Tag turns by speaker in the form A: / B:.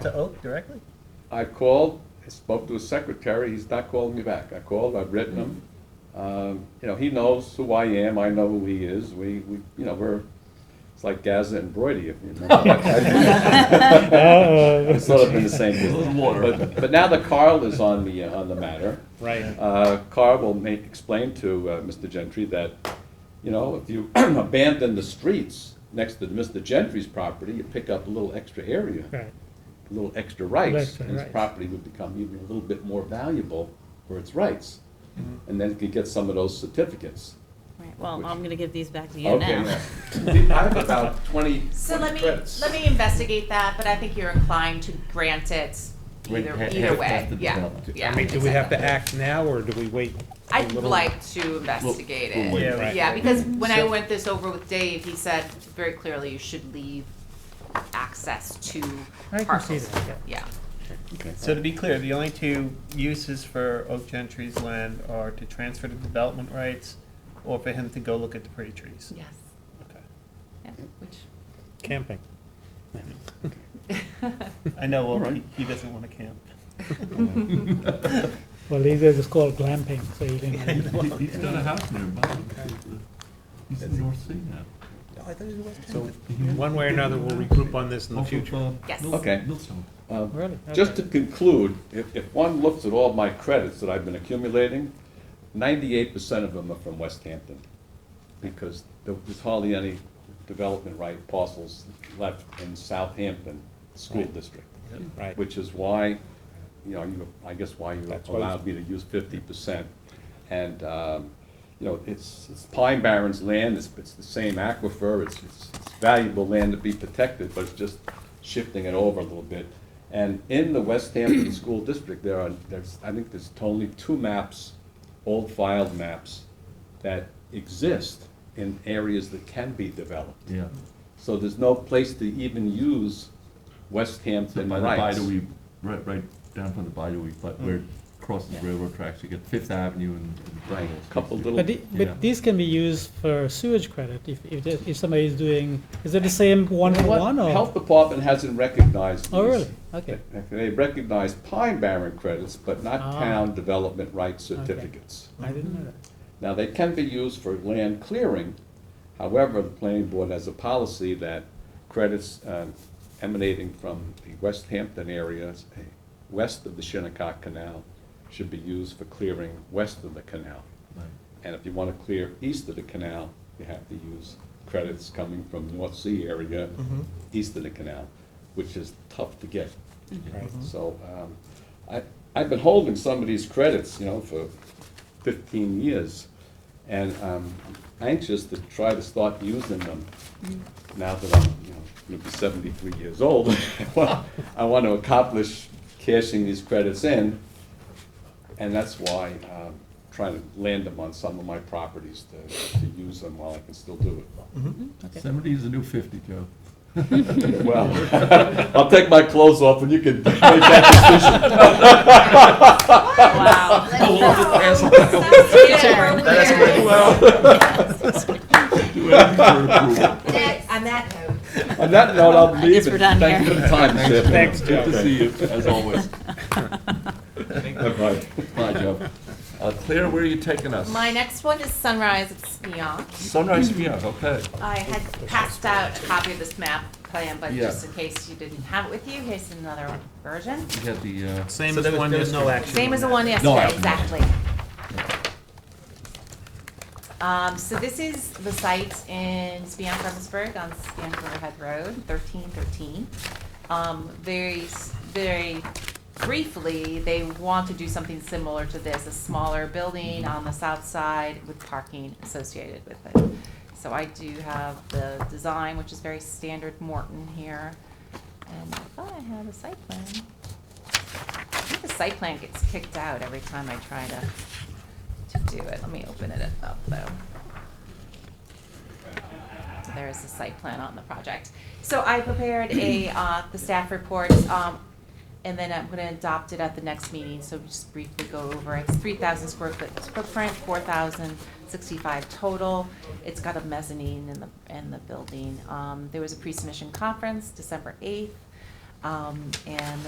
A: to Oak directly?
B: I called, I spoke to his secretary, he's not calling me back. I called, I've written him. Um, You know, he knows who I am, I know who he is, we, we, you know, we're, it's like Gaza and Brody, if you remember.
C: Uh,
B: It's sort of in the same business. But, but now that Carl is on the, uh, on the matter,
C: Right.
B: uh, Carl will make, explain to uh, Mr. Gentry that, you know, if you abandon the streets next to Mr. Gentry's property, you pick up a little extra area
C: Right.
B: a little extra rights,
C: Extra
B: and his
C: rights.
B: property would become even a little bit more valuable for its rights. And then could get some of those certificates.
D: Right, well,
B: Which-
D: I'm gonna give these back to you
B: Okay,
D: now.
B: now, I have about twenty
E: So
B: 20
E: let me,
B: credits.
E: let me investigate that, but I think you're inclined to grant it either,
F: Wait, ha-
E: either
F: have-
E: way,
F: have to
E: yeah,
F: develop it.
E: yeah.
C: I mean, do we have to act
E: exactly.
C: now, or do we wait? a
E: I'd
C: little-
E: like to investigate
F: we'll wait.
E: it.
C: right.
E: Yeah, because when I
C: So-
E: went this over with Dave, he said very clearly you should leave access to
C: I can see
E: parcels.
C: that, yeah.
E: Yeah,
F: Okay.
A: So to be clear, the only two uses for Oak Gentry's land are to transfer the development rights or for him to go look at the pretty trees.
E: yes,
A: Okay.
E: yeah, which,
C: Camping.
A: I know, well, he,
B: Alright.
A: he doesn't want to camp.
G: Well, these days it's called glamping, so you can,
F: He's got a house nearby. He's in the North Sea now. So
C: One way or another, we'll regroup on this in the
F: Off of,
C: future.
F: uh,
E: Yes.
F: Mil-
B: Okay.
F: Millstone.
B: Um,
C: Really?
B: Just to conclude, if, if one looks at all my credits that I've been accumulating, ninety-eight percent of them are from West Hampton. Because there- there's hardly any development right parcels left in Southampton School District.
C: Right.
B: Which is why, you know, you, I guess why you
C: That's why you-
B: allowed me to use fifty percent. And, um, you know, it's, it's Pine Barrens land, it's, it's the same aquifer, it's, it's it's valuable land to be protected, but it's just shifting it over a little bit. And in the West Hampton School District, there are, there's, I think there's only two maps, old filed maps, that exist in areas that can be developed.
F: Yeah.
B: So there's no place to even use West
F: So
B: Hampton
F: by the
B: rights.
F: Bidewee, right, right down from the Bidewee, but where it crosses railroad tracks, you get Fifth Avenue and. and
B: Right,
F: all those
B: couple
F: things.
B: little-
G: but, the-
F: Yeah.
G: but these can be used for sewage credit if, if, the- if somebody is doing, is it the same one for
B: What
G: one or?
B: Health Department hasn't recognized
G: Oh,
B: these.
G: really? Okay.
B: They recognize Pine Barren credits, but not
G: Ah.
B: town development rights certificates.
G: I didn't know that.
B: Now, they can be used for land clearing, however, the planning board has a policy that credits uh, emanating from the West Hampton areas, eh, west of the Shinnecock Canal, should be used for clearing west of the canal.
F: Right.
B: And if you want to clear east of the canal, you have to use credits coming from North Sea area, east of the canal, which is tough to get.
C: Right.
B: So, um, I, I've been holding some of these credits, you know, for fifteen years. And um, I'm anxious to try to start using them now that I'm, you know, gonna be seventy-three years old. Well, I want to accomplish cashing these credits in. And that's why i trying to land them on some of my properties to, to use them while I can still do
F: Seventy is the new fifty, Joe.
B: it. Well, I'll take my clothes off and you can make that
E: wow.
F: Do everything for approval.
H: On that note.
B: On that note, I'll leave.
D: guess
B: and
D: we're done
B: Thank you for the time, Sip.
C: Thanks,
F: Good to
C: Joe.
F: see you, as always.
B: Bye-bye.
F: Bye, Joe. Uh, Claire, where are you taking us?
E: My next one is Sunrise at Sneon.
F: Sunrise Pier, okay.
E: I had passed out a copy of this map plan, but
F: Yeah.
E: just in case you didn't have it with you, here's another version.
F: You got the, uh,
C: Same
A: So
C: as
A: there
C: the
A: was-
C: one,
A: there
C: there's
A: was
C: no
A: two-
C: action.
E: Same as the
C: on
E: one
C: that.
F: No, I
E: yesterday,
F: haven't.
E: exactly. Um, so this is the site in Spion Frementsburg on Spion Riverhead Road, thirteen thirteen. Um, very, s- very briefly, they want to do something similar to this, a smaller building on the south side with parking associated with it. So I do have the design, which is very standard Morton here, and I thought I had a site plan. I think the site plan gets kicked out every time I try to, to do it. Let me open it up, though. So There is the site plan on the project. So I prepared a, uh, the staff report, um, and then I'm gonna adopt it at the next meeting, so just briefly go over. it. It's three thousand square foot footprint, four thousand sixty-five total. It's got a mezzanine in the, in the building. Um, there was a pre-submission conference, December eighth. Um, and